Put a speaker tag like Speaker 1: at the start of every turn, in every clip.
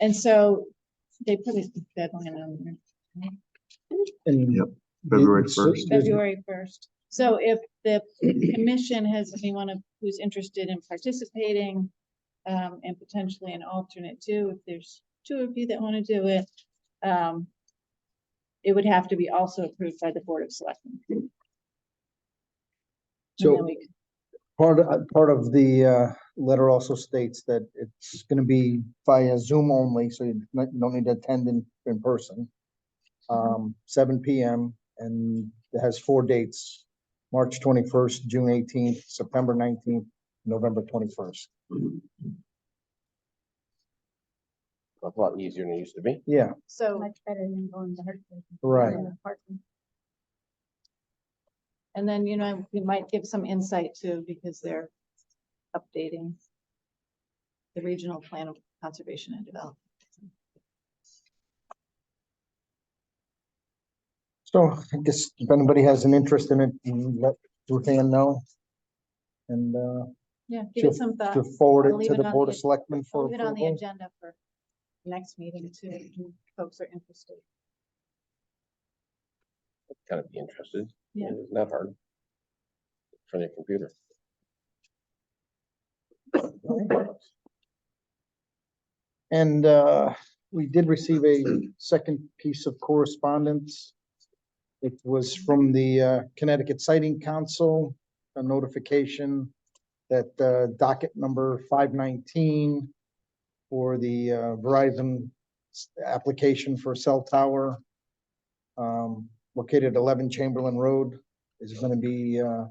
Speaker 1: And so they put a deadline on there.
Speaker 2: And-
Speaker 3: Yep, February
Speaker 2: It's-
Speaker 3: 1st.
Speaker 1: February first. So if the commission has anyone of- who's interested in participating, um, and potentially an alternate too, if there's two of you that want to do it, um, it would have to be also approved by the Board of Selectmen. And then
Speaker 2: So
Speaker 1: we could-
Speaker 2: part, uh, part of the, uh, letter also states that it's gonna be via Zoom only, so you don't you don't need to attend in, in person. Um, seven P M and it has four dates, March twenty-first, June eighteenth, September nineteenth, November twenty-first.
Speaker 4: a lot easier than it used to be.
Speaker 2: Yeah,
Speaker 1: So,
Speaker 5: Much better than going to Hartford.
Speaker 2: right.
Speaker 1: and then, you know, we might give some insight too, because they're updating the regional plan of conservation and development.
Speaker 2: So I guess if anybody has an interest in it, you let Ruthann know. And, uh,
Speaker 1: Yeah, give it
Speaker 2: Sure.
Speaker 1: some thought.
Speaker 2: to forward
Speaker 1: I'll
Speaker 2: it
Speaker 1: leave
Speaker 2: to
Speaker 1: it
Speaker 2: the
Speaker 1: on
Speaker 2: Board
Speaker 1: the-
Speaker 2: of Selectmen for
Speaker 1: Leave it on the
Speaker 2: approval.
Speaker 1: agenda for next meeting too, if folks are interested.
Speaker 4: Kind of be interested.
Speaker 1: Yeah.
Speaker 4: It's not hard. From your computer.
Speaker 2: And uh, we did receive a second piece of correspondence. It was from the uh, Connecticut Sighting Council, a notification that uh, docket number five nineteen for the uh, Verizon s- application for cell tower um, located at eleven Chamberlain Road is gonna be, uh,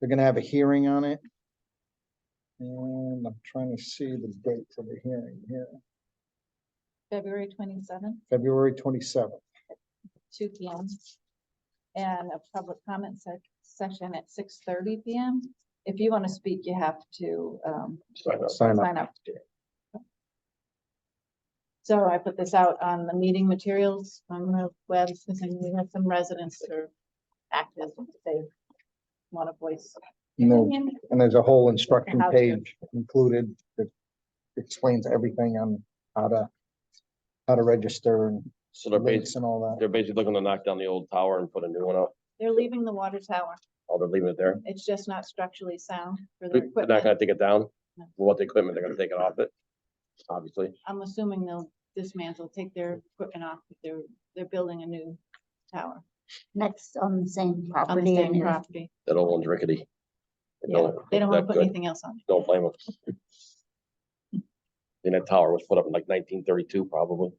Speaker 2: they're gonna have a hearing on it. And I'm trying to see the date for the hearing here.
Speaker 1: February twenty-seventh,
Speaker 2: February twenty-seventh.
Speaker 1: two P M. And a public comment se- session at six thirty P M. If you want to speak, you have to, um,
Speaker 4: Sign up.
Speaker 2: Sign up.
Speaker 1: sign up. So I put this out on the meeting materials on the web, since we have some residents that are active, they want to voice.
Speaker 2: And there-
Speaker 1: opinion.
Speaker 2: and there's a whole instruction
Speaker 1: How to.
Speaker 2: page included that explains everything on how to, how to register and
Speaker 4: So they're
Speaker 2: links
Speaker 4: basically,
Speaker 2: and all that.
Speaker 4: they're basically looking to knock down the old tower and put a new one up.
Speaker 1: They're leaving the water tower.
Speaker 4: Oh, they're leaving it there.
Speaker 1: It's just not structurally sound for their
Speaker 4: They're not
Speaker 1: equipment.
Speaker 4: gonna take it down.
Speaker 1: No.
Speaker 4: What the equipment, they're gonna take it off it. Obviously,
Speaker 1: I'm assuming they'll dismantle, take their equipment off, if they're, they're building a new tower
Speaker 5: That's on the same
Speaker 1: on the
Speaker 5: property and
Speaker 1: same
Speaker 5: it's
Speaker 1: property.
Speaker 4: that old one's rickety. They
Speaker 1: Yeah,
Speaker 4: don't look
Speaker 1: they don't wanna
Speaker 4: that
Speaker 1: put
Speaker 4: good.
Speaker 1: anything else on. it.
Speaker 4: Don't blame them. And that tower was put up in like nineteen thirty-two probably.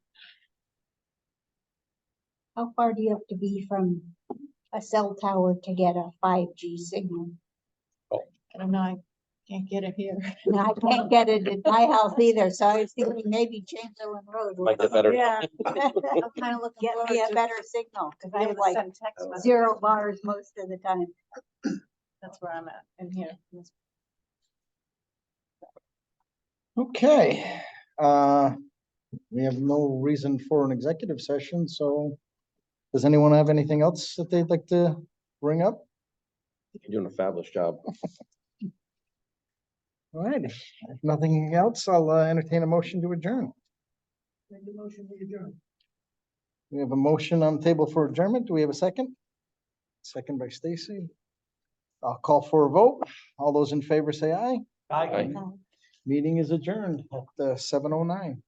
Speaker 5: how far do you have to be from a cell tower to get a five G signal?
Speaker 1: I don't know, I can't get it here.
Speaker 5: And I can't get it at my house either, so I was thinking maybe Chamberlain Road. would-
Speaker 4: Might get better.
Speaker 5: Yeah.
Speaker 1: I'm kinda looking
Speaker 5: Get
Speaker 1: forward
Speaker 5: me a
Speaker 1: to
Speaker 5: better signal, cause
Speaker 1: be
Speaker 5: I
Speaker 1: able
Speaker 5: have
Speaker 1: to
Speaker 5: like
Speaker 1: send text messages.
Speaker 5: uh, zero bars most of the time.
Speaker 1: That's where I'm at, in here. in this-
Speaker 2: Okay, uh, we have no reason for an executive session, so does anyone have anything else that they'd like to bring up?
Speaker 4: You're doing a fabulous job.
Speaker 2: All right, if nothing else, I'll uh, entertain a motion to adjourn. We have a motion on the table for adjournment. Do we have a second? Second by Stacy. I'll call for a vote. All those in favor say aye.
Speaker 4: Aye.
Speaker 5: Uh,
Speaker 2: Meeting is adjourned at seven oh nine.